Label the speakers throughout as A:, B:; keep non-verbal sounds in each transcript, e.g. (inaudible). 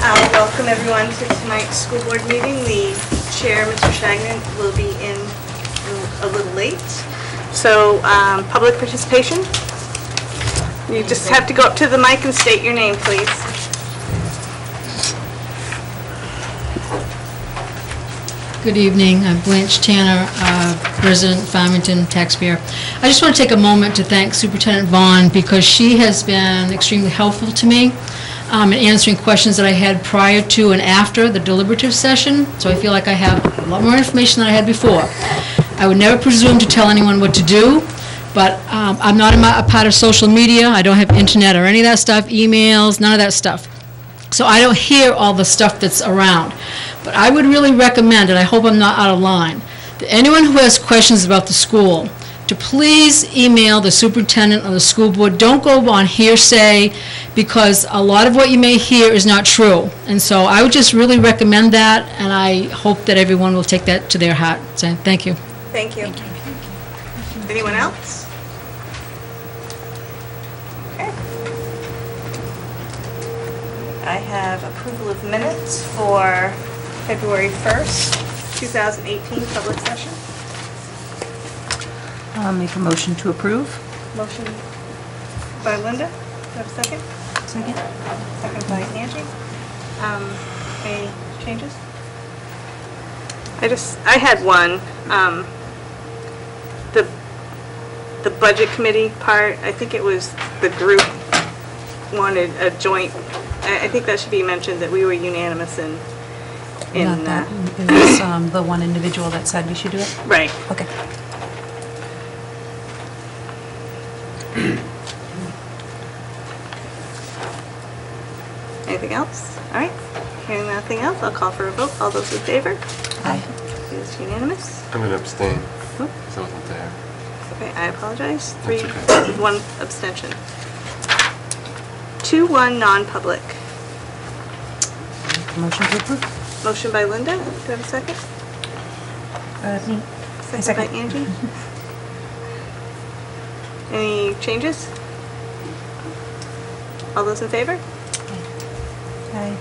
A: Uh, Welcome, everyone, to tonight's school board meeting. The chair, Mr. Shagnon, will be in a little late. So, um, public participation? You just have to go up to the mic and state your name, please.
B: Good evening, I'm Blanche Tanner, uh, resident of Farmington taxpayer. I just want to take a moment to thank Superintendent Vaughn because she has been extremely helpful to me um, in answering questions that I had prior to and after the deliberative session, so I feel like I have a lot more information than I had before. I would never presume to tell anyone what to do, but um, I'm not in my- a part of social media, I don't have internet or any of that stuff, emails, none of that stuff. So I don't hear all the stuff that's around. But I would really recommend, and I hope I'm not out of line, that anyone who has questions about the school, to please email the superintendent or the school board. Don't go on hearsay, because a lot of what you may hear is not true. And so I would just really recommend that, and I hope that everyone will take that to their heart. So, thank you.
A: Thank you. Anyone else? Okay. I have approval of minutes for February 1st, 2018, public session.
C: Uh,
D: I'll make a motion to approve.
A: Motion by Linda, do I have a second?
D: Second.
A: Second by Angie. Um, Any changes? I just, I had one. um, The, the budget committee part, I think it was the group wanted a joint, I, I think that should be mentioned, that we were unanimous in, in,
D: Not
A: uh,
D: that, it was um, the one individual that said we should do it?
A: right.
D: Okay.
A: Anything else? All right. Hearing nothing else, I'll call for a vote. All those in favor?
D: Aye.
A: It is unanimous.
E: I'm gonna abstain,
A: Oop.
E: because I wasn't there.
A: Okay, I apologize. Three,
E: okay.
A: one abstention. Two, one, non-public.
D: Motion to approve?
A: Motion by Linda, do I have a second?
D: Uh, me. I
A: by Angie? Any changes? All those in favor?
D: Aye.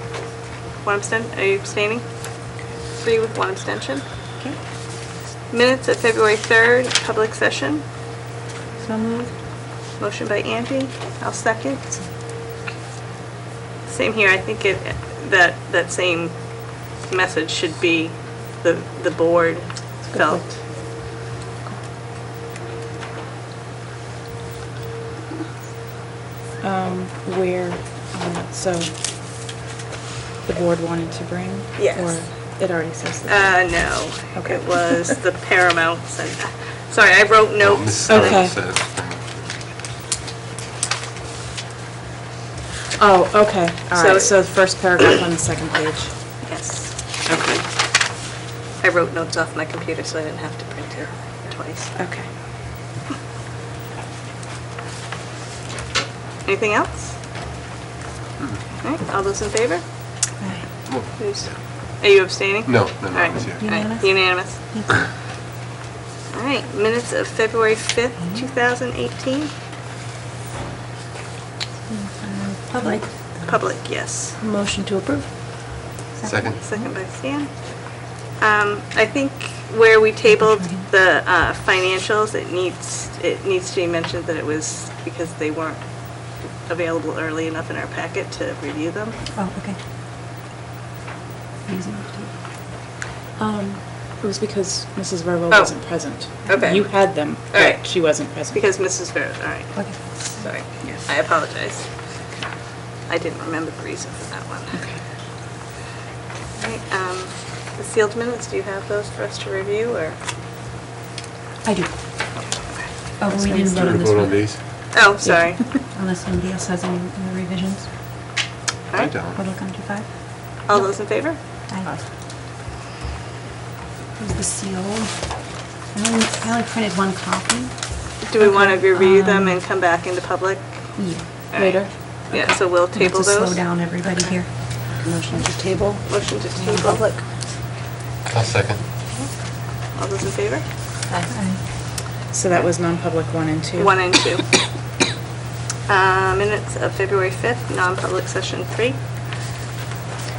A: One abstent, are you abstaining? Three with one abstention.
D: Okay.
A: Minutes of February 3rd, public session.
D: So moved.
A: Motion by Angie, I'll second. Same here, I think it, that, that same message should be the, the board felt.
C: um, where, um, so the board wanted to bring?
A: Yes.
C: Or it already says that?
A: Uh, no,
C: Okay.
A: it was the Paramounts and, sorry, I wrote
E: No,
A: notes.
E: Mrs.
A: and I-
C: Okay.
E: Earl says, um,
C: Oh, okay, all
A: So-
C: right, so the first paragraph on the second page.
A: Yes,
C: Okay.
A: I wrote notes off my computer so I didn't have to print it twice.
C: Okay.
A: Anything else? All right, all those in favor?
D: Aye.
A: Who's- Are you abstaining?
E: uh, No, no, no,
A: All right.
E: I was here.
A: All right,
D: Unanimous?
A: Unanimous. All right, minutes of February 5th, 2018,
D: Public.
A: public, yes.
D: Motion to approve?
E: Second?
A: Second by Stan. Um, I think where we tabled the uh, financials, it needs, it needs to be mentioned that it was because they weren't available early enough in our packet to review them.
D: Oh, okay. Easy enough to-
C: Um, It was because Mrs. Verbo
A: Oh.
C: wasn't present.
A: Okay.
C: You had them,
A: All right.
C: but she wasn't present.
A: Because Mrs. Barrett, all right.
D: Okay.
A: Sorry, I apologize. I didn't remember the reason for that one. All right, um, The sealed minutes, do you have those for us to review, or?
D: I do. Oh, we didn't
E: Do
D: vote
E: we
D: on this
E: vote on
D: one?
E: these?
A: Oh,
D: (laughs)
A: sorry.
D: Unless somebody else has any other revisions.
A: All
E: I
A: right,
D: What
E: don't.
D: will come to five?
A: all those in favor?
D: Aye. Who's the seal? I only, I only printed one copy.
A: Do we want to review
D: um,
A: them and come back into public?
D: Yeah.
A: All right.
C: Later.
A: Yeah, so we'll
D: We have
A: table
D: to slow
A: those.
D: down everybody here.
C: Motion to table?
A: Motion to table public.
E: I'll second.
A: All those in favor?
C: So that was non-public one and
A: (coughs)
C: two?
A: One and two. Uh, Minutes of February 5th, non-public session three.